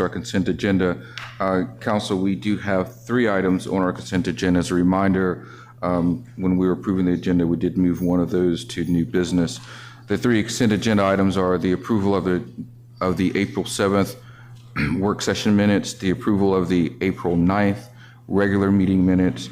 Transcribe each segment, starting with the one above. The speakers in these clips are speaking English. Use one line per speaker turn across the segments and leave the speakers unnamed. our consent agenda. Uh, Council, we do have three items on our consent agenda. As a reminder, um, when we were approving the agenda, we did move one of those to new business. The three consent agenda items are the approval of the, of the April 7th work session minutes, the approval of the April 9th regular meeting minutes,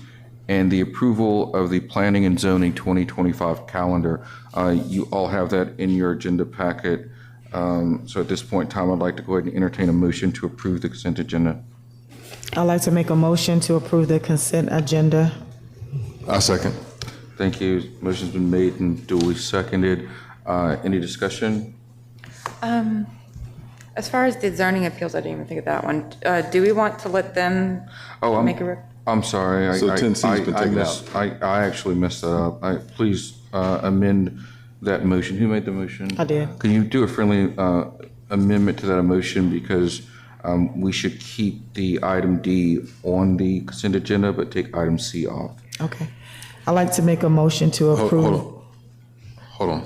and the approval of the Planning and Zoning 2025 calendar. Uh, You all have that in your agenda packet. Um, So at this point in time, I'd like to go ahead and entertain a motion to approve the consent agenda.
I'd like to make a motion to approve the consent agenda.
I second.
Thank you. Motion's been made and duly seconded. Uh, Any discussion?
As far as the zoning appeals, I didn't even think of that one. Uh, Do we want to let them
Oh, I'm,
make a, rec-
I'm sorry. I-
So
I-
10C 's
I-
been
I
taken
mis- I, I actually messed that up. I, please uh, amend that motion. Who made the motion?
I did.
Can you do a friendly uh, amendment to that motion because um, we should keep the item D on the consent agenda, but take item C off?
Okay. I'd like to make a motion to
Hold, hold
approve.
on. Hold on.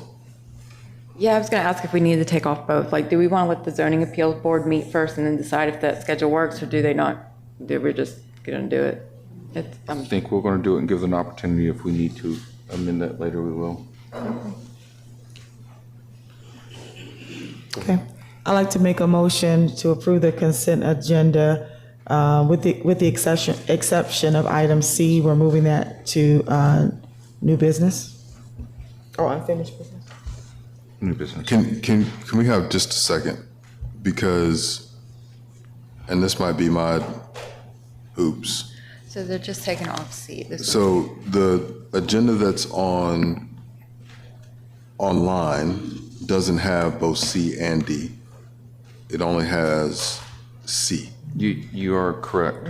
yeah, I was going to ask if we needed to take off both. Like, do we want to let the zoning appeals board meet first and then decide if that schedule works, or do they not? Do we just going to do it? It's-
I
um,
think we're going to do it and give them an opportunity. If we need to amend that later, we will.
Okay. I'd like to make a motion to approve the consent agenda uh, with the, with the exception, exception of item C. We're moving that to uh, new business or unfinished business.
New business.
Can can can we have just a second? Because, and this might be my oops.
So they're just taking off seat. This
So the agenda that's on online doesn't have both C and D. It only has C.
You, you are correct.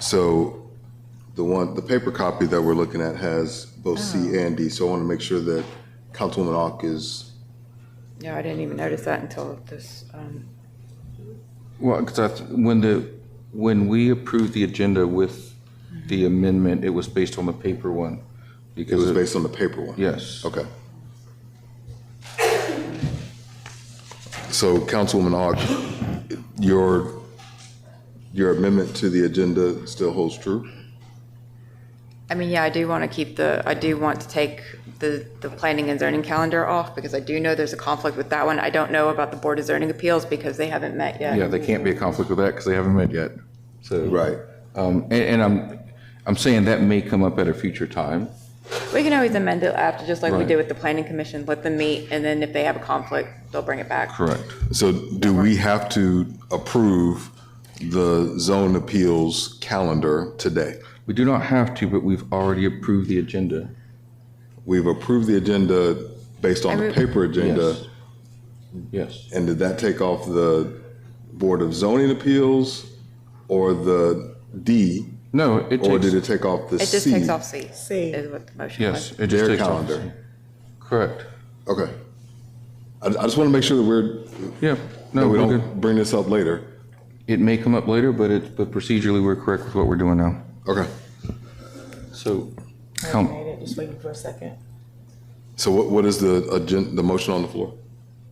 So the one, the paper copy that we're looking at has both C and D. So I want to make sure that Councilwoman Ock is
Yeah, I didn't even notice that until this, um,
Well, because when the, when we approved the agenda with the amendment, it was based on the paper one.
It
Because,
was
it-
based on the paper one?
yes,
Okay. So Councilwoman Ock, your, your amendment to the agenda still holds true?
I mean, yeah, I do want to keep the, I do want to take the, the planning and zoning calendar off because I do know there's a conflict with that one. I don't know about the Board of Zoning Appeals because they haven't met yet.
yeah, there can't be a conflict with that because they haven't met yet, so.
Right.
Um, and, and I'm, I'm saying that may come up at a future time.
We can always amend it after, just like we
Right.
did with the planning commission, let them meet, and then if they have a conflict, they'll bring it back.
Correct.
So do we have to approve the zone appeals calendar today?
We do not have to, but we've already approved the agenda.
We've approved the agenda based on the paper agenda.
Yes. Yes.
And did that take off the Board of Zoning Appeals or the D?
No, it
Or did
takes,
it take off the C?
It just takes off C,
C.
is what the motion
yes,
was.
it just
Their
takes off.
calendar.
Correct.
Okay. I, I just want to make sure that we're,
Yeah,
that
no,
we
we're good.
don't bring this up later.
It may come up later, but it, but procedurally, we're correct with what we're doing now.
Okay.
So. Count,
Just waiting for a second.
So what, what is the agenda, the motion on the floor?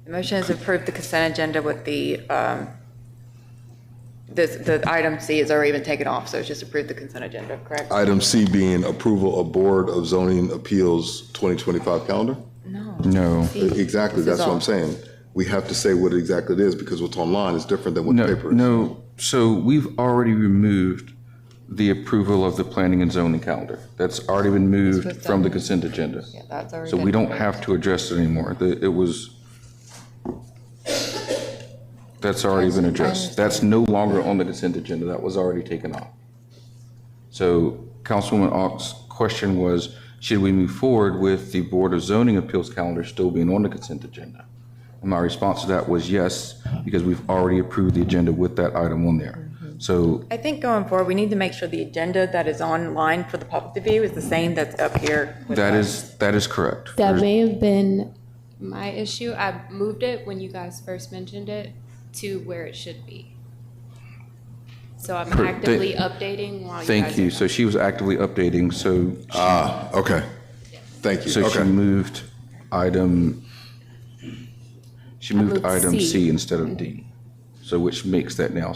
The motion is approved the consent agenda with the, um, this, the item C is already been taken off, so it's just approved the consent agenda, correct?
Item C being approval of Board of Zoning Appeals 2025 calendar?
No.
No.
C.
Exactly,
This
that's
is
what
all.
I'm saying. We have to say what exactly it is because what's online is different than what
no,
the paper is.
no, so we've already removed the approval of the planning and zoning calendar. That's already been moved
what's
from the
done.
consent agenda.
Yeah, that's already.
So we
been-
don't have to address it anymore. The- It was, that's already been addressed. That's no longer on the consent agenda. That was already taken off. So Councilwoman Ock's question was, should we move forward with the Board of Zoning Appeals calendar still being on the consent agenda? And my response to that was yes, because we've already approved the agenda with that item on there. So,
I think going forward, we need to make sure the agenda that is online for the public to view is the same that's up here. with
that
us.
is, that is correct.
That may have been my issue. I moved it when you guys first mentioned it to where it should be. So I'm
Per-
actively updating while you guys.
Thank you.
are-
So she was actively updating, so
Ah, okay. Thank you,
So she
okay.
moved item, she moved
moved
item
C.
C instead of D. So which makes that now